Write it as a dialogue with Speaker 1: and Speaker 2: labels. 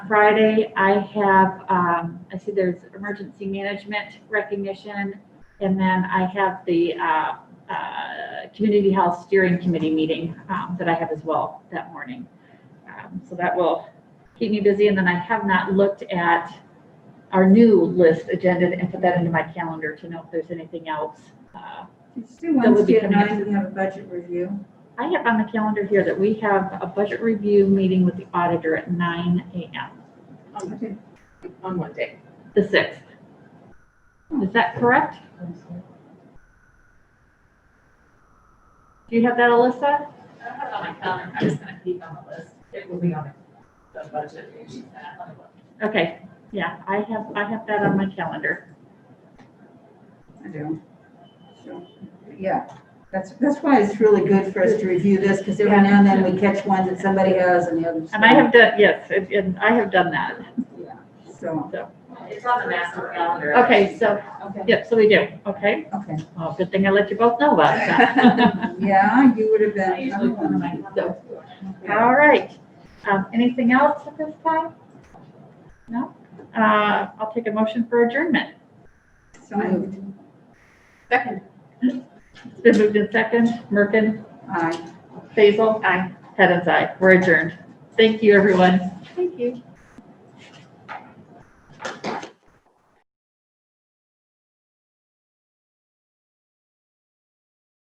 Speaker 1: Friday, I have, um, I see there's emergency management recognition, and then I have the, uh, uh, Community Health Steering Committee meeting, um, that I have as well that morning. Um, So that will keep me busy, and then I have not looked at our new list agenda and put that into my calendar to know if there's anything else. Uh,
Speaker 2: It's still
Speaker 1: That would be
Speaker 2: Wednesday at
Speaker 1: coming up.
Speaker 2: nine, we have a budget review.
Speaker 1: I have on the calendar here that we have a budget review meeting with the auditor at nine AM.
Speaker 2: Okay.
Speaker 3: on what day?
Speaker 1: The sixth. Is that correct? Do you have that, Alyssa?
Speaker 3: I don't have it on my calendar, I'm just gonna keep on the list, it will be on the budget.
Speaker 1: Okay, yeah, I have, I have that on my calendar.
Speaker 2: I do. So, Yeah, that's, that's why it's really good for us to review this, because every now and then we catch one that somebody has and the others.
Speaker 1: And I have done, yes, and- and I have done that.
Speaker 2: don't. So,
Speaker 3: It's on the master calendar.
Speaker 1: Okay, so,
Speaker 2: okay,
Speaker 1: yep, so we do, okay.
Speaker 2: okay.
Speaker 1: Well, good thing I let you both know about that.
Speaker 2: Yeah, you would have been.
Speaker 3: I usually put on my calendar too.
Speaker 1: All right. Um, anything else at this time? No? Uh, I'll take a motion for adjournment.
Speaker 2: So moved.
Speaker 3: Second.
Speaker 1: It's been moved in second. Merkin,
Speaker 2: Aye.
Speaker 1: Basil, aye. Head and aye. We're adjourned. Thank you, everyone. Thank you.